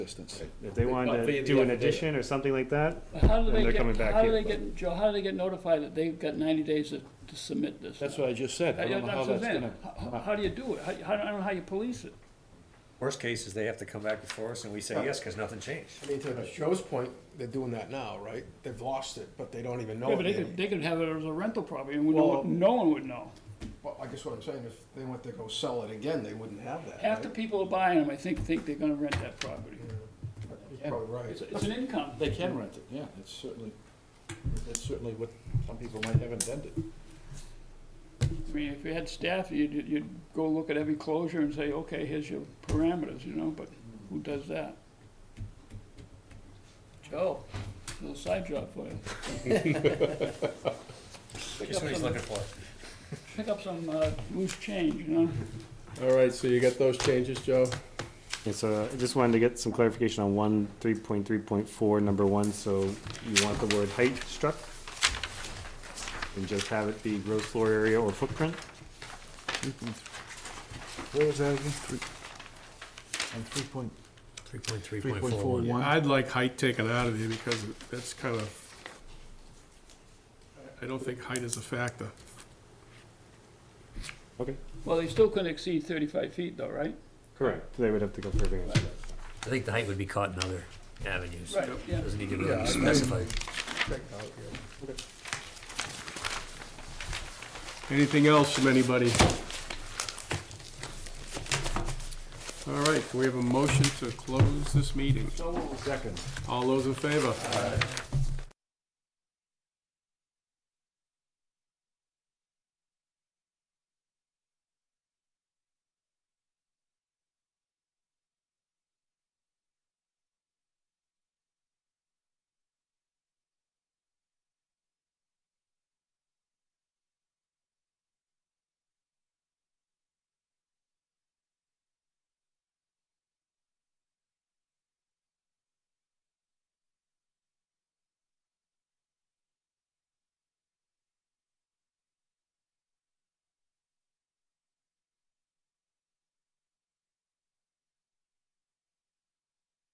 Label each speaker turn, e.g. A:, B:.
A: distance.
B: If they wanted to do an addition or something like that,
C: How
B: And
C: do they
B: they're
C: get,
B: coming back
C: how do
B: here.
C: they get, Joe, how do they get notified that they've got ninety days to, to submit this?
A: That's what I just said, I don't know how
C: That's what I'm
A: that's
C: saying.
A: gonna.
C: How- How, how do you do it? How, how- I don't know how you police it.
D: Worst case is they have to come back before us and we say yes, cause nothing changed.
E: I mean, to Joe's point, they're doing that now, right? They've lost it, but they don't even know
C: Yeah, but
E: it.
C: they
E: yet.
C: could, they could have it as a rental property and we no,
E: Oh, Well-
C: no one would know.
E: Well, I guess what I'm saying, if they went to go sell it again, they wouldn't have that,
C: Half the
E: right?
C: people are buying them, I think, think they're gonna rent that property.
E: You're Probably
C: It's,
E: right.
C: it's an income.
A: They can rent it, yeah, that's certainly, that's certainly what some people might have intended.
C: I mean, if you had staff, you'd, you'd go look at every closure and say, okay, here's your parameters, you know, but who does that? Joe, little side job for you.
D: Guess what he's looking for?
C: Pick up some, uh, loose change, you know?
F: All right, so you got those changes, Joe?
B: and so I just wanted to get some clarification on one, three point three point four, number one, so you want the word height struck? And just have it be gross floor area or footprint?
A: What was that again? Three- On three point,
D: Three point three,
A: three point four one?
F: I'd like height taken out of there because that's kind of, I don't think height is a factor.
C: Well, they still couldn't exceed thirty-five feet though, right?
B: Correct. They would have to go further.
D: I think the height would be caught in other avenues.
C: Right, yeah.
D: Doesn't need to
E: Yeah, I-
D: really be specified.
F: Anything else from anybody? All right, can we have a motion to close this meeting?
A: Second.
F: All those in favor?